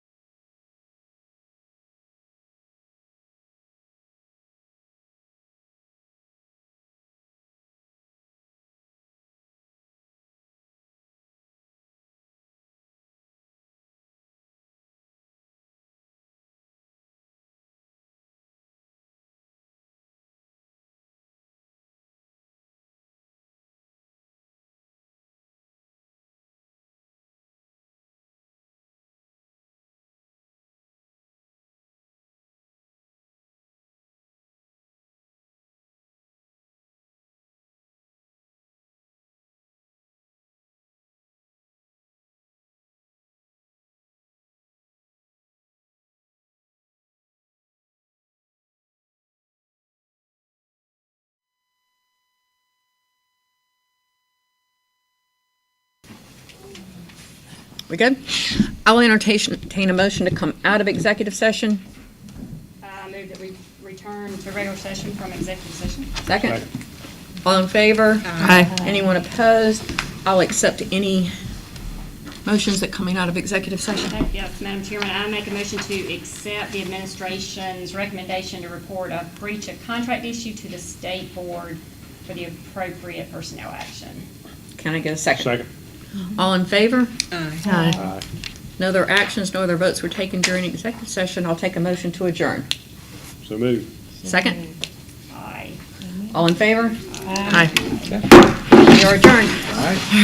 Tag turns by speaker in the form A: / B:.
A: We good? I will entertain entertain a motion to come out of executive session.
B: I move that we return to regular session from executive session.
A: Second? All in favor?
C: Aye.
A: Anyone opposed? I'll accept any motions that coming out of executive session.
B: Yes, Madam Chairman, I make a motion to accept the administration's recommendation to report a breach of contract issue to the state board for the appropriate personnel action.
A: Can I get a second?
D: Second.
A: All in favor?
C: Aye.
A: No other actions, no other votes were taken during executive session. I'll take a motion to adjourn.
D: So moved.
A: Second?
B: Aye.
A: All in favor?
C: Aye.
A: We are adjourned.